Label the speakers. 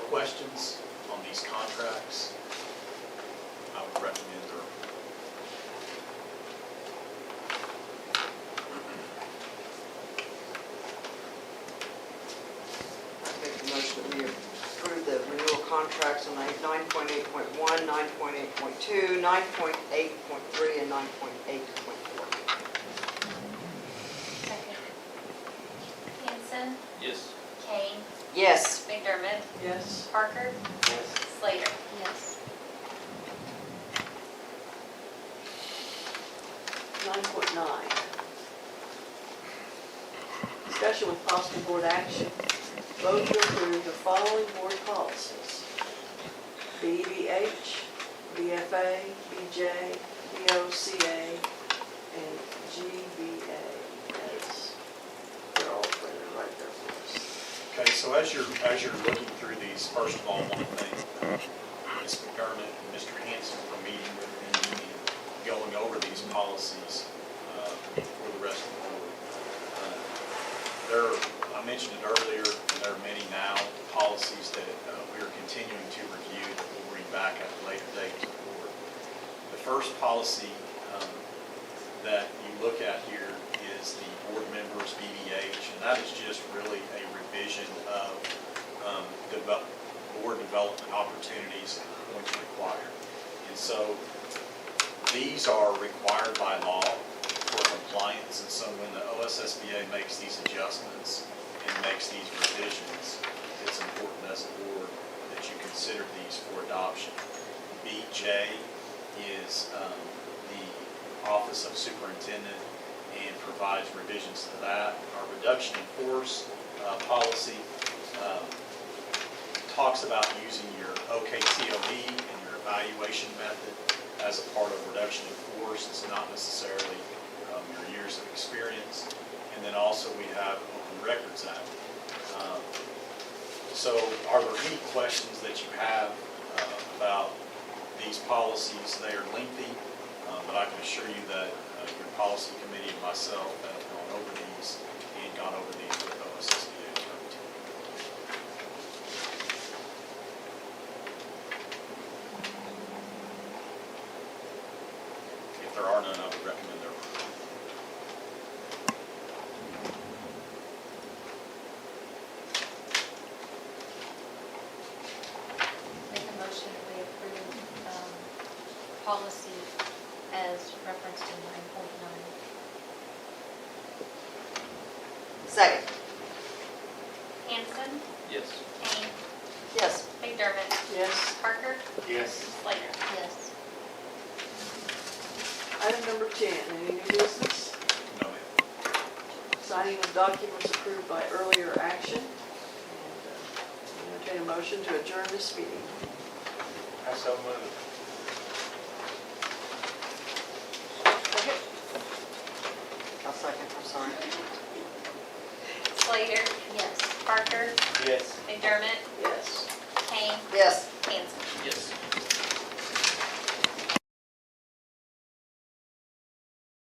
Speaker 1: questions on these contracts, I would recommend their,
Speaker 2: Make a motion that we approve the renewal contracts on nine point eight point one, nine point eight point two, nine point eight point three, and nine point eight point four.
Speaker 3: Second. Hanson,
Speaker 4: Yes.
Speaker 3: Kane,
Speaker 2: Yes.
Speaker 3: McDermott,
Speaker 2: Yes.
Speaker 3: Parker,
Speaker 2: Yes.
Speaker 3: Slater. Yes.
Speaker 5: Nine point nine. Discussion with possible board action, vote to approve the following board policies. BBH, BFA, BJ, BOCA, and GBA. As They're all printed right there for us.
Speaker 1: okay, so as you're, as you're looking through these, first of all, one thing, Ms. uh, McDermott and Mr. Hanson for meeting with me and going over these policies uh, for the rest of the board. Uh, There, are- I mentioned it earlier, and there are many now policies that uh, we are continuing to review that we'll bring back at a later date to the board. The first policy um, that you look at here is the board members BDH, and that is just really a revision of um, develop- board development opportunities and points required. And so these are required by law for compliance, and so when the OSSBA makes these adjustments and makes these revisions, it's important as a board that you consider these for adoption. BJ is um, the Office of Superintendent and provides revisions to that. Our reduction in force uh, policy um, talks about using your OKTOE E and your evaluation method as a part of reduction in force. It's not necessarily um, your years of experience. And then also we have Open Records Act. Um, So are there any questions that you have uh, about these policies? They are lengthy, uh, but I can assure you that uh, your policy committee and myself have gone over these and gone over these with OSSBA attorney. If there are none, I would recommend their approval.
Speaker 3: Make a motion that we approve um, policy as referenced in nine point nine.
Speaker 2: Second.
Speaker 3: Hanson,
Speaker 4: Yes.
Speaker 3: Kane,
Speaker 2: Yes.
Speaker 3: McDermott,
Speaker 5: Yes.
Speaker 3: Parker,
Speaker 4: Yes.
Speaker 3: Slater. Yes.
Speaker 5: Item number ten, any new business?
Speaker 1: No, ma'am.
Speaker 5: signing of documents approved by earlier action. And, uh, Entertain a motion to adjourn this meeting.
Speaker 4: I so move.
Speaker 2: I'll second, I'm sorry.
Speaker 3: Slater. Yes. Parker,
Speaker 4: Yes.
Speaker 3: McDermott,
Speaker 5: Yes.
Speaker 3: Kane,
Speaker 2: Yes.
Speaker 3: Hanson.
Speaker 4: Yes.